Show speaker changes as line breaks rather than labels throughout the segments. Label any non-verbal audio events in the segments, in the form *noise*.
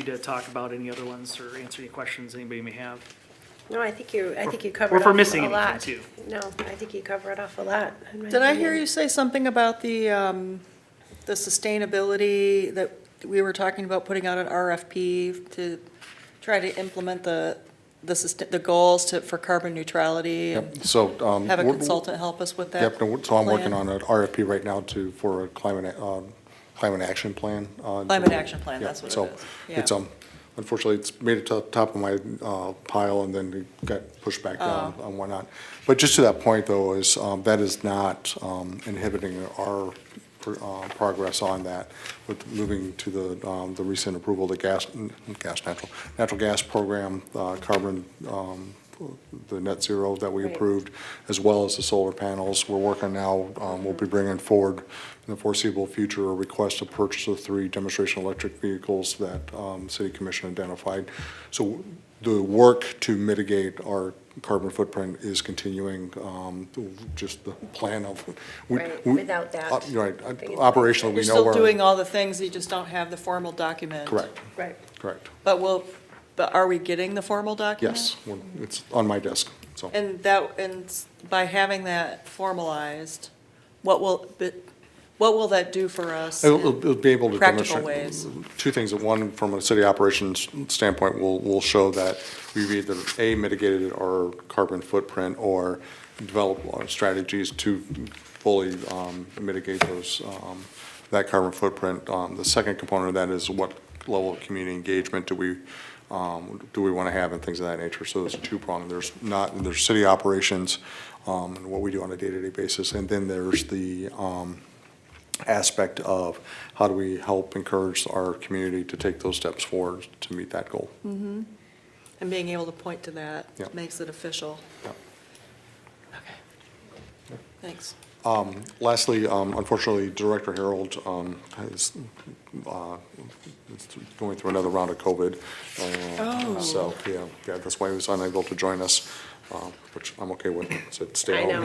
need to talk about any other ones or answer any questions anybody may have.
No, I think you, I think you
or
covered
if
off
we're
a
missing anything,
lot.
too.
No, I think you covered off a lot. in my
Did I hear
opinion.
you say something about the, um, the sustainability that we were talking about putting out an RFP to try to implement the, the, sust- the goals to, for carbon neutrality? and
Yep, so. um,
Have a
we're-
consultant help us with that?
Yep, no, so I'm working
plan?
on an RFP right now to, for a climate, a- um, climate action plan. uh,
Climate action plan,
yeah,
that's what it
so
is,
It's,
yeah.
um, unfortunately, it's made it to the top of my uh, pile and then it got pushed back down
Oh.
and whatnot. But just to that point though, is um, that is not um, inhibiting our pr- uh, progress on that with moving to the, um, the recent approval of the gas, n- gas, natural, natural gas program, uh, carbon, um, the net zero that we
Right.
approved, as well as the solar panels. We're working now, um, we'll be bringing forward in the foreseeable future a request to purchase the three demonstration electric vehicles that um, City Commission identified. So the work to mitigate our carbon footprint is continuing, um, just the plan of. we-
Right,
we-
without that.
uh, Right, uh, operationally,
You're
we know
still
where.
doing all the things, you just don't have the formal document?
Correct,
Right.
correct.
But will, but are we getting the formal document?
Yes, we're- it's on my desk, so.
And that, and s- by having that formalized, what will, but what will that do for us?
It'll- It'll it'll be able to
Practical
demonstrate.
ways.
Two things. One, from a city operations standpoint, will, will show that we've either, A, mitigated our carbon footprint or developed our strategies to fully um, mitigate those, um, that carbon footprint. Um, The second component of that is what level of community engagement do we, um, do we want to have and things of that nature. So there's two pronged. There's not, there's city operations um, and what we do on a day-to-day basis. And then there's the, um, aspect of how do we help encourage our community to take those steps forward to meet that goal.
And being able to point to that
Yeah.
makes it official.
Yeah.
Okay. Thanks.
Um, Lastly, um, unfortunately, Director Harold um, is uh, is going through another round of COVID. uh,
Oh.
So, yeah, yeah, that's why he was unable to join us, uh, which I'm okay with, said stay
I
home.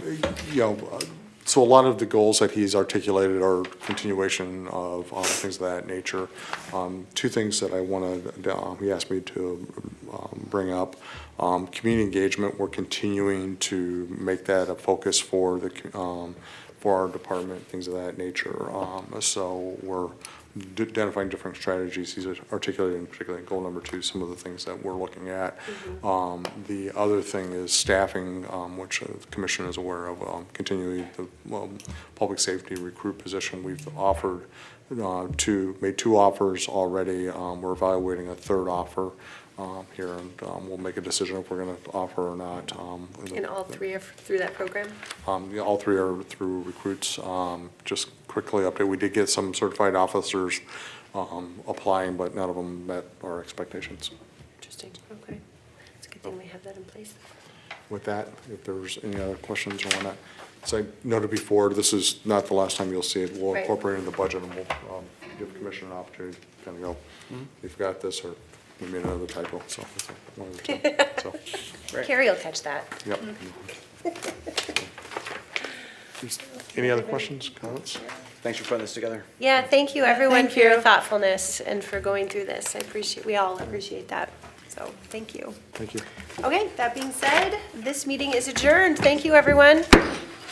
*laughs*
know, yeah.
you know, uh, so a lot of the goals that he's articulated are continuation of um, things of that nature. Um, Two things that I want to, he asked me to um, bring up. Um, Community engagement, we're continuing to make that a focus for the, co- um, for our department, things of that nature. Um, So we're d- identifying different strategies. He's articulated in particular in goal number two, some of the things that we're looking at.
Mm-hmm.
Um, The other thing is staffing, um, which uh, the commission is aware of, um, continually the um, public safety recruit position we've offered uh, two, made two offers already. Um, We're evaluating a third offer um, here, and um, we'll make a decision if we're going to offer or not. um, in the-
And all three are through that program?
um, yeah, All three are through recruits. Um, Just quickly update, we did get some certified officers um, applying, but none of them met our expectations.
Interesting, okay. It's a good thing we have that in place.
With that, if there's any other questions or whatnot, as I noted before, this is not the last time you'll see it. We'll
Right.
incorporate it in the budget, and we'll um, give the commission an opportunity to kind of go, you forgot this, or you made another typo, so. it's one of the two. So,
Carrie will catch that.
Yep. Just- Any other questions, comments?
Thanks for putting this together.
Yeah, thank you, everyone, for your
you.
thoughtfulness and for going through this. I appreciate, we all appreciate that, so thank you.
Thank you.
Okay, that being said, this meeting is adjourned. Thank you, everyone.